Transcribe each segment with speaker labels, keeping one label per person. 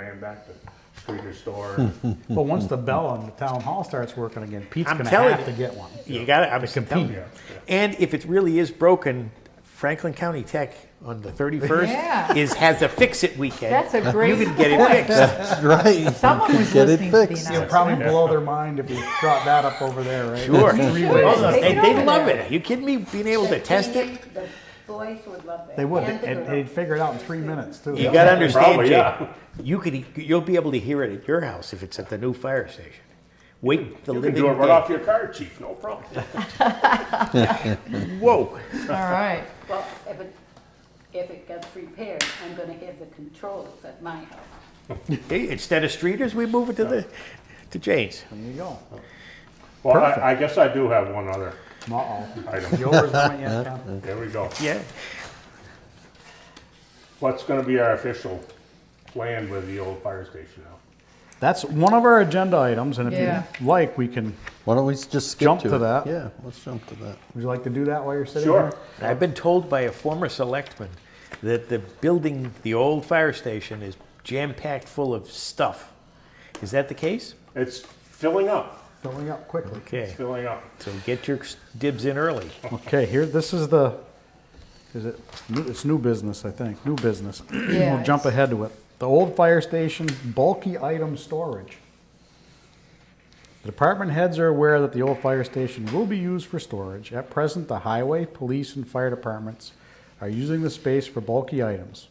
Speaker 1: ran back to Streeter store. But once
Speaker 2: Mm-hmm.
Speaker 1: the bell on the town hall starts working again, Pete's
Speaker 2: I'm
Speaker 1: gonna
Speaker 2: telling
Speaker 1: have
Speaker 2: you.
Speaker 1: to get one.
Speaker 2: You got it. I'm
Speaker 1: To
Speaker 2: telling
Speaker 1: compete.
Speaker 2: you. And if it really is broken, Franklin County Tech on the 31st
Speaker 3: Yeah.
Speaker 2: is has a fix it weekend.
Speaker 3: That's a great
Speaker 2: You can get
Speaker 3: point.
Speaker 2: it fixed.
Speaker 4: Right.
Speaker 3: Someone was
Speaker 4: Get it
Speaker 3: listening to
Speaker 4: fixed.
Speaker 3: be
Speaker 1: It'll
Speaker 3: nice.
Speaker 1: probably blow their mind if we brought that up over there, right?
Speaker 2: Sure.
Speaker 1: Three
Speaker 2: Oh,
Speaker 1: ways.
Speaker 2: no, they,
Speaker 3: Take it
Speaker 2: they
Speaker 3: over
Speaker 2: love
Speaker 3: there.
Speaker 2: it. you kidding me? Being able to test it?
Speaker 5: The boys would love it.
Speaker 1: They would,
Speaker 5: And the
Speaker 1: and
Speaker 5: girls.
Speaker 1: they'd figure it out in three minutes too.
Speaker 2: You got to understand,
Speaker 1: Probably,
Speaker 2: Jay.
Speaker 1: yeah.
Speaker 2: You could you'll be able to hear it at your house if it's at the new fire station. Wait the
Speaker 6: You can
Speaker 2: living
Speaker 6: do it right
Speaker 2: dead.
Speaker 6: off your car, chief, no problem.
Speaker 2: Whoa.
Speaker 3: All right.
Speaker 5: Well, if it, if it gets repaired, I'm gonna have the controls at my house.
Speaker 2: Hey, instead of streeters, we move it to the to Jane's.
Speaker 1: There you go.
Speaker 6: Well, I, I guess I do have one other
Speaker 1: Uh-oh.
Speaker 6: item.
Speaker 1: Yours went yet, Tom?
Speaker 6: There we go.
Speaker 2: Yeah.
Speaker 6: What's gonna be our official plan with the old fire station now?
Speaker 1: That's one of our agenda items, and
Speaker 3: Yeah.
Speaker 1: if you like, we can,
Speaker 4: Why don't we just skip
Speaker 1: Jump
Speaker 4: to,
Speaker 1: to
Speaker 4: it?
Speaker 1: that.
Speaker 4: Yeah, let's jump to that.
Speaker 1: would you like to do that while you're sitting
Speaker 6: Sure.
Speaker 1: here?
Speaker 2: I've been told by a former selectman that the building, the old fire station, is jam packed full of stuff. Is that the case?
Speaker 6: It's filling up,
Speaker 1: Filling up quickly.
Speaker 2: Okay.
Speaker 6: It's filling up.
Speaker 2: So get your dibs in early.
Speaker 1: Okay, here, this is the, is it, new- it's new business, I think, new business. We'll
Speaker 3: Yeah,
Speaker 1: jump
Speaker 3: it's-
Speaker 1: ahead to it. The old fire station bulky item storage. The department heads are aware that the old fire station will be used for storage. At present, the highway, police, and fire departments are using the space for bulky items.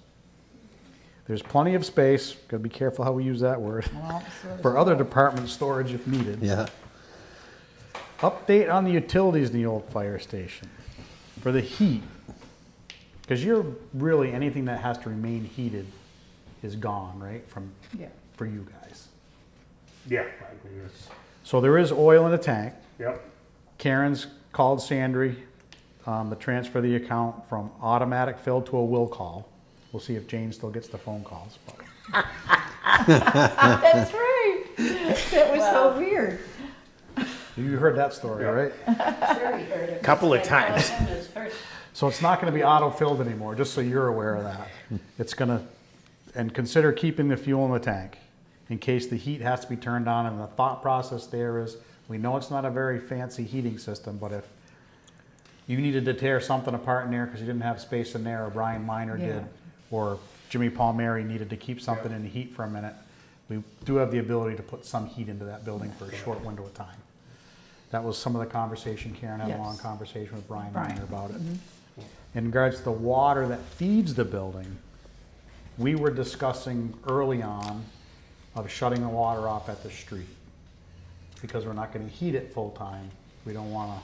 Speaker 1: There's plenty of space, gotta be careful how we use that word,
Speaker 3: Well, so-
Speaker 1: for other department storage if needed.
Speaker 4: Yeah.
Speaker 1: Update on the utilities in the old fire station for the heat. Because you're really anything that has to remain heated is gone, right? From
Speaker 3: Yeah.
Speaker 1: for you guys.
Speaker 6: Yeah, I mean, it's,
Speaker 1: So there is oil in the tank.
Speaker 6: yep,
Speaker 1: Karen's called Sandry um, to transfer the account from automatic fill to a will call. We'll see if Jane still gets the phone calls. But
Speaker 3: That's right. That was so weird.
Speaker 1: you heard that story,
Speaker 6: Yeah.
Speaker 1: right?
Speaker 5: Sure, you heard it.
Speaker 2: Couple of
Speaker 5: Because I
Speaker 2: times.
Speaker 5: told him it's first.
Speaker 1: So it's not going to be auto-filled anymore, just so you're aware of that. It's going to, and consider keeping the fuel in the tank in case the heat has to be turned on. And the thought process there is, we know it's not a very fancy heating system, but if you needed to tear something apart in there because you didn't have space in there, or Brian Miner
Speaker 3: Yeah.
Speaker 1: did, or Jimmy Palmieri needed to keep something in the heat for a minute, we do have the ability to put some heat into that building for a short window of time. That was some of the conversation, Karen had a long
Speaker 3: Yes.
Speaker 1: conversation with Brian
Speaker 3: Brian.
Speaker 1: Miner about it. In regards to the water that feeds the building, we were discussing early on of shutting the water off at the street. Because we're not gonna heat it full time, we don't wanna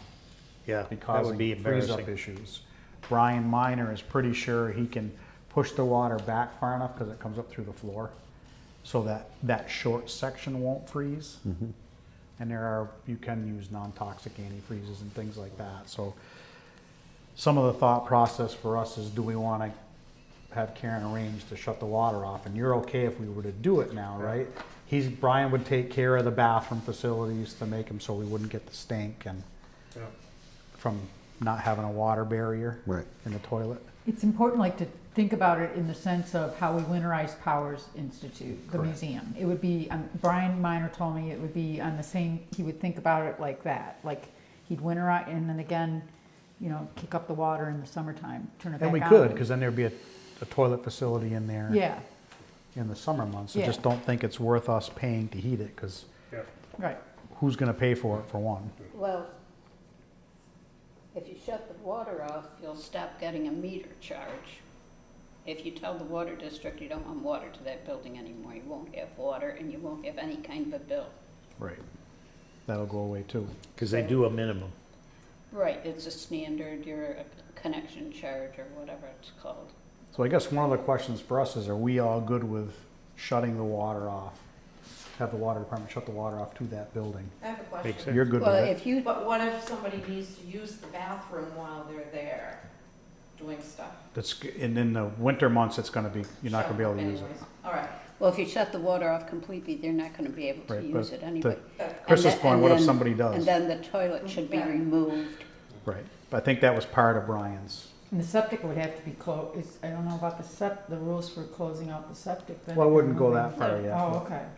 Speaker 2: Yeah.
Speaker 1: be
Speaker 2: that would be
Speaker 1: causing freeze up
Speaker 2: embarrassing.
Speaker 1: issues. Brian Miner is pretty sure he can push the water back far enough, cause it comes up through the floor, so that that short section won't freeze.
Speaker 2: Mm-hmm.
Speaker 1: And there are, you can use non-toxic antifreezes and things like that, so some of the thought process for us is, do we want to have Karen arrange to shut the water off? And you're okay if we were to do it now, right? He's, Brian would take care of the bathroom facilities to make them so we wouldn't get the stink and
Speaker 6: yep.
Speaker 1: from not having a water barrier
Speaker 4: Right.
Speaker 1: in the toilet.
Speaker 3: It's important, like, to think about it in the sense of how we winterize Powers Institute, the museum. It would be, um, Brian Miner told me it would be on the same, he would think about it like that. Like, he'd winterize, and then again, you know, kick up the water in the summertime, turn it back
Speaker 1: And
Speaker 3: on.
Speaker 1: we could, because then there'd be a, a toilet facility in there
Speaker 3: Yeah,
Speaker 1: in the summer months. I just
Speaker 3: Yeah.
Speaker 1: don't think it's worth us paying to heat it, because
Speaker 6: yep.
Speaker 3: right.
Speaker 1: who's going to pay for it, for one?
Speaker 5: Well, if you shut the water off, you'll stop getting a meter charge. If you tell the water district you don't want water to that building anymore, you won't have water and you won't have any kind of a bill.
Speaker 1: Right. That'll go away too.
Speaker 2: Because they do a minimum.
Speaker 5: Right, it's a standard, your uh, connection charge or whatever it's called.
Speaker 1: So I guess one of the questions for us is, are we all good with shutting the water off? Have the water department shut the water off to that building?
Speaker 7: I have a
Speaker 2: Makes
Speaker 7: question.
Speaker 2: sense.
Speaker 1: You're good with
Speaker 5: Well,
Speaker 1: it?
Speaker 5: if you,
Speaker 7: But what if somebody needs to use the bathroom while they're there doing stuff?
Speaker 1: That's, and in the winter months, it's gonna be, you're not gonna be able to use it.
Speaker 7: Anyways, All right.
Speaker 5: well, if you shut the water off completely, they're not gonna be able to
Speaker 1: Right,
Speaker 5: use
Speaker 1: but
Speaker 5: it anyway.
Speaker 1: the-
Speaker 5: And
Speaker 1: Chris's
Speaker 5: the-
Speaker 1: point,
Speaker 5: and
Speaker 1: what if
Speaker 5: then-
Speaker 1: somebody does?
Speaker 5: And then the toilet should be
Speaker 7: Yeah.
Speaker 5: removed.
Speaker 1: Right. But I think that was part of Brian's
Speaker 3: And the septic would have to be closed, I don't know about the sep, the rules for closing out the septic. then
Speaker 1: Well, I
Speaker 3: if you're
Speaker 1: wouldn't go
Speaker 3: moving-
Speaker 1: that far yet.
Speaker 3: Oh, okay.